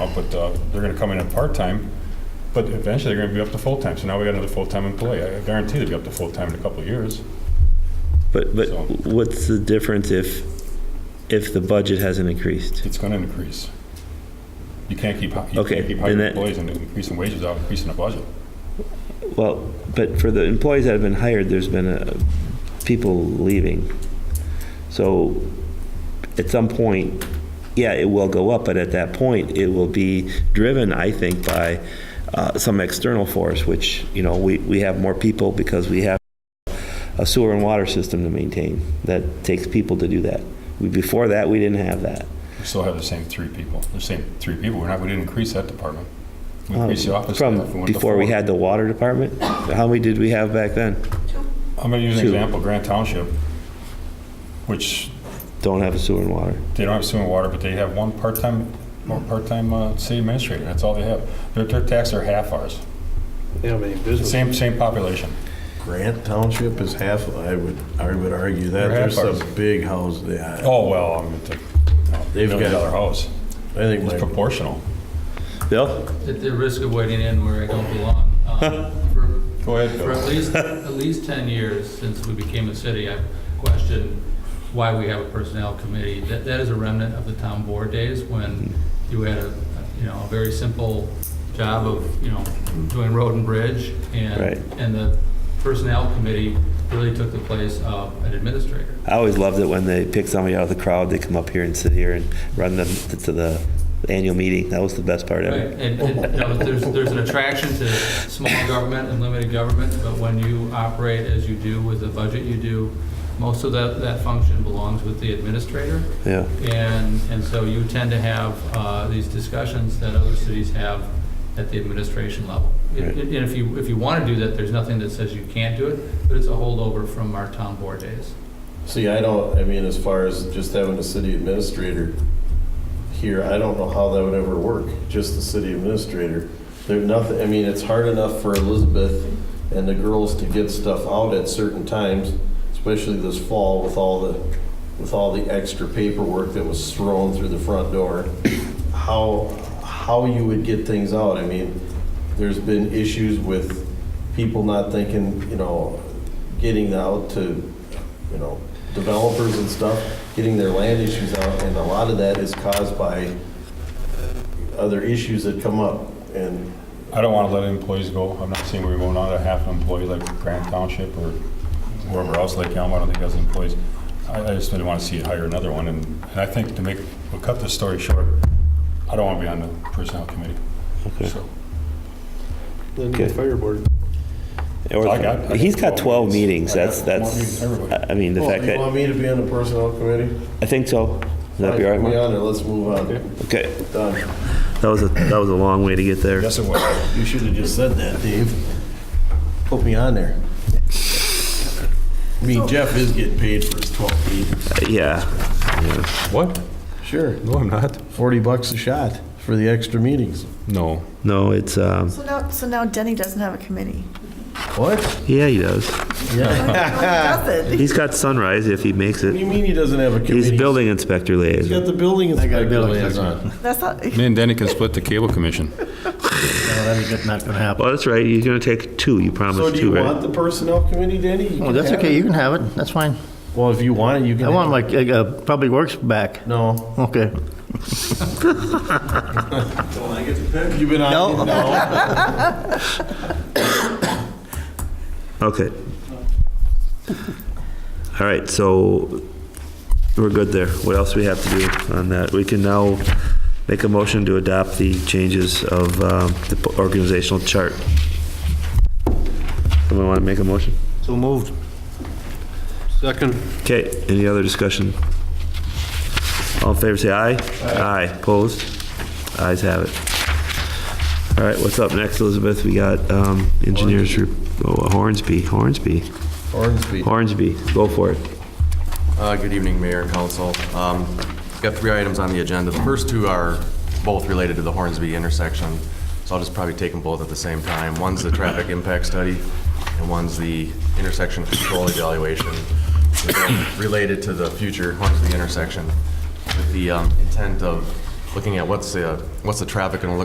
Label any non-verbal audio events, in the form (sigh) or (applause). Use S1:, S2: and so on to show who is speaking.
S1: out, but uh, they're going to come in at part-time, but eventually they're going to be up to full-time. So now we got another full-time employee. I guarantee they'll be up to full-time in a couple of years.
S2: But, but
S1: So-
S2: what's the difference if, if the budget hasn't increased?
S1: It's going to increase. You can't keep, hi- you
S2: Okay,
S1: can't keep
S2: then
S1: hiring
S2: that-
S1: employees and increasing wages out, increasing the budget.
S2: Well, but for the employees that have been hired, there's been uh people leaving. So at some point, yeah, it will go up, but at that point, it will be driven, I think, by uh, some external force, which, you know, we, we have more people because we have a sewer and water system to maintain. That takes people to do that. We Before that, we didn't have that.
S1: We still have the same three people, the same three people. We're not, we didn't increase that department. We
S2: Um,
S1: increased the office staff. went
S2: From
S1: to
S2: before we
S1: four.
S2: had the water department? How many did we have back then?
S1: I'm going to use an
S2: two.
S1: example, Grant Township, which
S2: Don't have a sewer and water.
S1: They don't have sewer and water, but they have one part-time, one part-time uh, city administrator. That's all they have. Their, their taxes are half ours.
S3: They don't have any business.
S1: Same, same population.
S4: Grant Township is half, I would, I would argue that.
S1: They're half
S4: There's some
S1: ours.
S4: big houses, yeah.
S1: Oh, well, I'm at the
S4: They've
S1: million
S4: got-
S1: dollar house.
S4: I think
S1: It's
S4: my
S1: proportional.
S2: Bill?
S5: At the risk of wading in where I don't belong, um, for
S1: Go ahead,
S5: for at
S1: Bill.
S5: least, at least 10 years since we became a city, I've questioned why we have a personnel committee. That, that is a remnant of the town board days when you had a, you know, a very simple job of, you know, doing road and bridge.
S2: Right.
S5: And, and the personnel committee really took the place of an administrator.
S2: I always loved it when they pick somebody out of the crowd, they come up here and sit here and run them to the annual meeting. That was the best part
S5: Right,
S2: ever.
S5: and, and, you know, there's, there's an attraction to small government and limited government, but when you operate as you do with the budget you do, most of that, that function belongs with the administrator.
S2: Yeah.
S5: And, and so you tend to have, uh, these discussions that other cities have at the administration level. And
S2: Right.
S5: and if you, if you wanna do that, there's nothing that says you can't do it, but it's a holdover from our town board days.
S4: See, I don't, I mean, as far as just having a city administrator here, I don't know how that would ever work, just the city administrator. There's nothing, I mean, it's hard enough for Elizabeth and the girls to get stuff out at certain times, especially this fall with all the, with all the extra paperwork that was thrown through the front door. How, how you would get things out, I mean, there's been issues with people not thinking, you know, getting out to you know, developers and stuff, getting their land issues out, and a lot of that is caused by other issues that come up, and
S1: I don't want to let employees go. I'm not seeing where we're going on to half an employee like Grant Township or wherever else, Lake Elmo, I don't think has employees. I, I just didn't want to see it hire another one. And, and I think to make, we'll cut this story short, I don't want to be on the personnel committee. So,
S3: Then the
S2: Okay.
S3: fire board.
S2: Or-
S1: I got- I got
S2: He's got 12 meetings.
S1: I got
S2: That's,
S1: more meetings
S2: that's,
S1: than everybody.
S2: I I mean, the
S4: Well,
S2: fact
S4: you
S2: that,
S4: want me to be on the personnel committee?
S2: I think so. Is that be all right,
S4: Put me
S2: Mark?
S4: on there, let's move on.
S2: Okay.
S4: Done.
S2: That was, a that was a long way to get there.
S1: Yes, it was.
S4: You should have just said that, Dave. Put me on there. I mean, Jeff is getting paid for his 12 meetings.
S2: Yeah.
S1: What?
S4: Sure,
S1: No, I'm not.
S4: 40 bucks a shot for the extra meetings.
S1: No.
S2: No, it's, um,
S6: So now, so now Denny doesn't have a committee.
S4: What?
S2: yeah, he does.
S6: Doesn't.
S2: He's got sunrise if he makes
S4: What do
S2: it.
S4: you mean he doesn't have a committee?
S2: He's building inspector
S4: He's got
S2: liaison.
S4: the building inspector. I got building inspector.
S6: That's not,
S1: Me and Danny can split the cable commission.
S7: That's not going to happen.
S2: Well, that's right. You're going to take two. You
S4: So
S2: promised
S4: do you
S2: two,
S4: want
S2: right?
S4: the personnel committee, Danny? You
S7: Well,
S4: can
S7: Oh, that's
S4: have
S7: okay,
S4: it.
S7: you can have it, that's fine.
S4: Well, if you want it, you can.
S7: I want
S4: have
S7: my uh, uh, Public Works back.
S4: it. No.
S7: Okay.
S4: You've been on. No. (laughs)
S2: Okay. All right, so we're good there. What else we have to do on that? We can now make a motion to adopt the changes of um, the organizational chart. Someone want to make a motion?
S3: So moved. Second.
S2: Okay, any other discussion? All in favor, say aye. Aye. Opposed? Ayes have it. All right, what's up next, Elizabeth? We got um, engineers, rep- oh, Hornsby, Hornsby,
S4: Ormsby.
S2: Hornsby, go for it.
S8: Uh, Good evening, Mayor and Council. Um, Got three items on the agenda. The first two are both related to the Hornsby intersection, so I'll just probably take them both at the same time. One's the traffic impact study, and one's the intersection control evaluation related to the future Hornsby intersection with the um, intent of looking at what's the, what's the traffic going to look